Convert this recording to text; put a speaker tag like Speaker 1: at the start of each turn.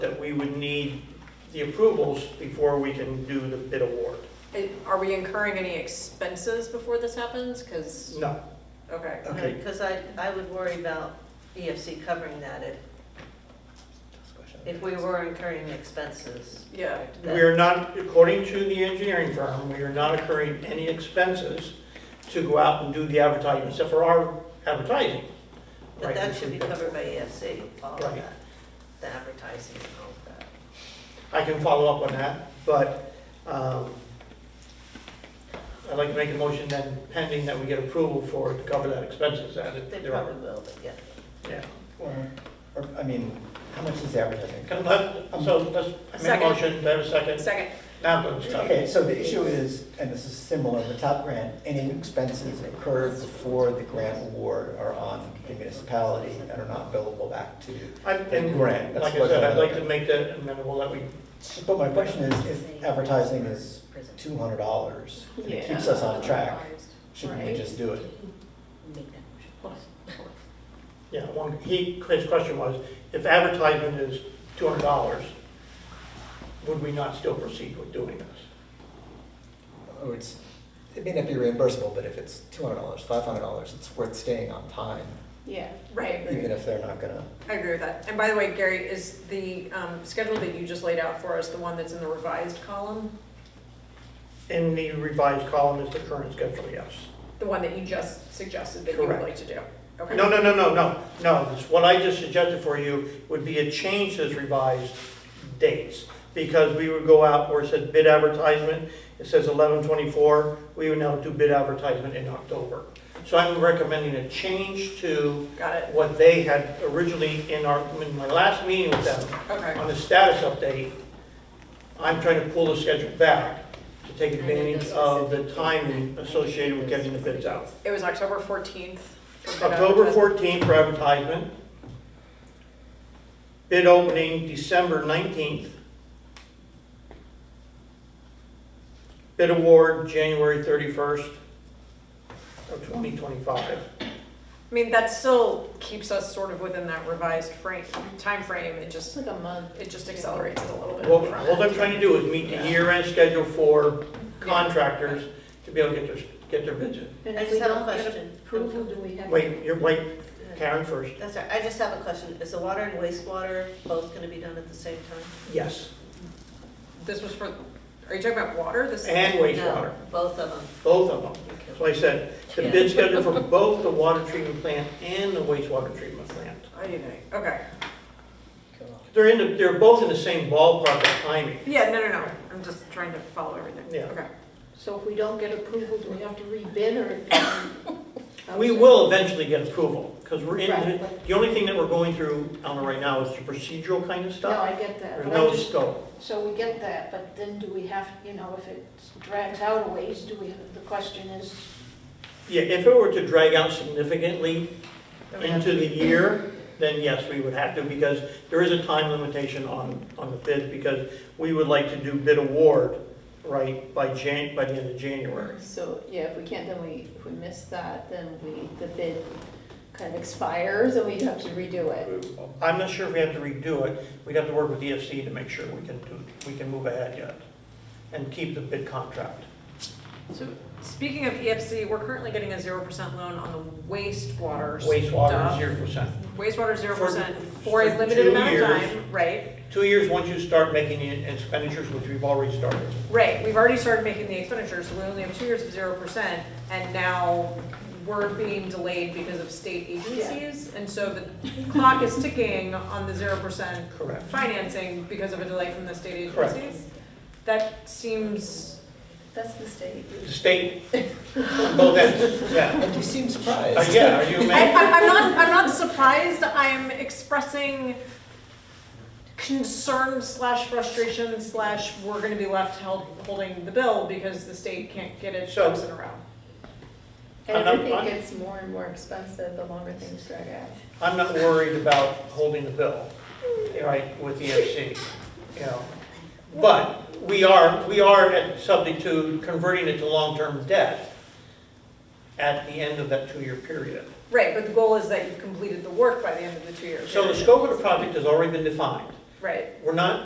Speaker 1: we would need the approvals before we can do the bid award.
Speaker 2: Are we incurring any expenses before this happens? Because,
Speaker 1: No,
Speaker 2: okay.
Speaker 1: Okay.
Speaker 3: Because I, I would worry about EFC covering that if, if we were incurring expenses.
Speaker 2: Yeah.
Speaker 3: that-
Speaker 1: we are not, according to the engineering firm, we are not incurring any expenses to go out and do the advertising, except for our advertising.
Speaker 3: But
Speaker 1: right,
Speaker 3: that
Speaker 1: which
Speaker 3: should
Speaker 1: we
Speaker 3: be
Speaker 1: pay
Speaker 3: covered by EFC, all of
Speaker 1: Right.
Speaker 3: that, the advertising and all of that.
Speaker 1: I can follow up on that, but um, I'd like to make a motion then pending that we get approval for it to cover that expenses. that if
Speaker 3: They
Speaker 1: there are-
Speaker 3: probably will, but yeah.
Speaker 1: Yeah.
Speaker 4: Well, or- I mean, how much is advertising?
Speaker 1: Can let- So let's make a
Speaker 2: Second.
Speaker 1: motion, do I have a second?
Speaker 2: Second,
Speaker 1: Now, let's talk.
Speaker 4: Okay, so the issue is, and this is similar, the top grant, any expenses incurred before the grant award are on the municipality and are not billable back to.
Speaker 1: I- And
Speaker 4: Grant, that's
Speaker 1: like I
Speaker 4: what-
Speaker 1: said, I'd like to make that amendable that we,
Speaker 4: But my question is, if advertising is two hundred dollars, and it keeps us on track, shouldn't we
Speaker 2: Right.
Speaker 4: just do it?
Speaker 1: yeah, one, he, his question was, if advertisement is two hundred dollars, would we not still proceed with doing this?
Speaker 4: Or Oh, it's, it may not be reimbursable, but if it's two hundred dollars, five hundred dollars, it's worth staying on time,
Speaker 5: Yeah.
Speaker 2: right.
Speaker 4: even if they're not gonna.
Speaker 2: I agree with that. And by the way, Gary, is the um, schedule that you just laid out for us the one that's in the revised column?
Speaker 1: In the revised column is the current schedule, yes.
Speaker 2: The one that you just suggested that you would
Speaker 1: Correct.
Speaker 2: like to do? Okay.
Speaker 1: No, no, no, no, no, no, It's what I just suggested for you would be a change to this revised dates. Because we would go out where it said bid advertisement, it says eleven twenty-four, we would now do bid advertisement in October. So I'm recommending a change to
Speaker 2: Got it.
Speaker 1: what they had originally in our, in my last meeting with them,
Speaker 2: Okay.
Speaker 1: on the status update, I'm trying to pull the schedule back to take advantage of the timing associated with getting the bids out.
Speaker 2: It was October 14th. for bid
Speaker 1: October
Speaker 2: advertising.
Speaker 1: 14th for advertisement. Bid opening December 19th. Bid award January 31st of 2025.
Speaker 2: I mean, that still keeps us sort of within that revised frame, timeframe. It
Speaker 5: It's
Speaker 2: just,
Speaker 5: like a month.
Speaker 2: it just accelerates it a little bit.
Speaker 1: What what I'm trying to do is meet the year-end schedule for contractors to be able to get their, get their bids in.
Speaker 5: And
Speaker 3: I
Speaker 5: if
Speaker 3: just
Speaker 5: we
Speaker 3: have a
Speaker 5: don't get
Speaker 3: question.
Speaker 5: Approval, do we have?
Speaker 1: Wait, you're, wait, Karen first.
Speaker 3: That's all right, I just have a question, is the water and wastewater both gonna be done at the same time?
Speaker 1: Yes,
Speaker 2: This was for, are you talking about water? This
Speaker 1: and wastewater,
Speaker 3: No, Both of them.
Speaker 1: both of them.
Speaker 3: Okay.
Speaker 1: So I said, the bid schedule for both the water treatment plant and the wastewater treatment plant.
Speaker 2: I didn't know. Okay.
Speaker 1: They're in, the- they're both in the same ballpark of timing.
Speaker 2: Yeah, no, no, no. I'm just trying to follow everything.
Speaker 1: Yeah.
Speaker 2: Okay.
Speaker 5: So if we don't get approval, do we have to rebid or?
Speaker 1: We will eventually get approval, because we're in,
Speaker 5: Right.
Speaker 1: the only thing that we're going through, Alma, right now is the procedural kind of
Speaker 5: No,
Speaker 1: stuff.
Speaker 5: I get that.
Speaker 1: There's
Speaker 5: but I
Speaker 1: no
Speaker 5: just-
Speaker 1: scope.
Speaker 5: So we get that, but then do we have, you know, if it drags out a ways, do we, the question is,
Speaker 1: Yeah, if it were to drag out significantly into the year, then yes, we would have to, because there is a time limitation on, on the bid, because we would like to do bid award, right, by Jan, by the end of January.
Speaker 6: So, yeah, if we can't, then we, if we miss that, then we, the bid kind of expires and we have to redo it.
Speaker 1: I'm not sure if we have to redo it, we'd have to work with EFC to make sure we can do, we can move ahead yet, and keep the bid contract.
Speaker 2: So speaking of EFC, we're currently getting a 0% loan on the wastewater
Speaker 1: Wastewater,
Speaker 2: stuff.
Speaker 1: zero percent.
Speaker 2: Wastewater 0%
Speaker 1: For-
Speaker 2: for a
Speaker 1: for
Speaker 2: limited
Speaker 1: two
Speaker 2: amount of
Speaker 1: years.
Speaker 2: time, right?
Speaker 1: Two years, once you start making the expenditures, which we've already started.
Speaker 2: Right, we've already started making the expenditures, so we only have two years of 0%, and now we're being delayed because of state agencies. And so the clock is ticking on the 0%
Speaker 1: Correct.
Speaker 2: financing because of a delay from the state
Speaker 1: Correct.
Speaker 2: agencies? That seems,
Speaker 6: That's the state.
Speaker 1: The state, both ends, yeah.
Speaker 4: And you seem surprised.
Speaker 1: Uh, Yeah, are you
Speaker 2: I,
Speaker 1: mad?
Speaker 2: I- I'm not, I'm not surprised, I'm expressing concern slash frustration slash we're gonna be left held, holding the bill because the state can't get its
Speaker 1: So-
Speaker 2: ducks in a row.
Speaker 6: And
Speaker 1: And I'm- I'm-
Speaker 6: everything gets more and more expensive the longer things drag out.
Speaker 1: I'm not worried about holding the bill, right, with EFC, you know. But we are, we are at- subject to converting it to long-term debt at the end of that two-year period.
Speaker 2: Right, but the goal is that you've completed the work by the end of the two years.
Speaker 1: So the scope of the project has already been defined.
Speaker 2: right.
Speaker 1: We're not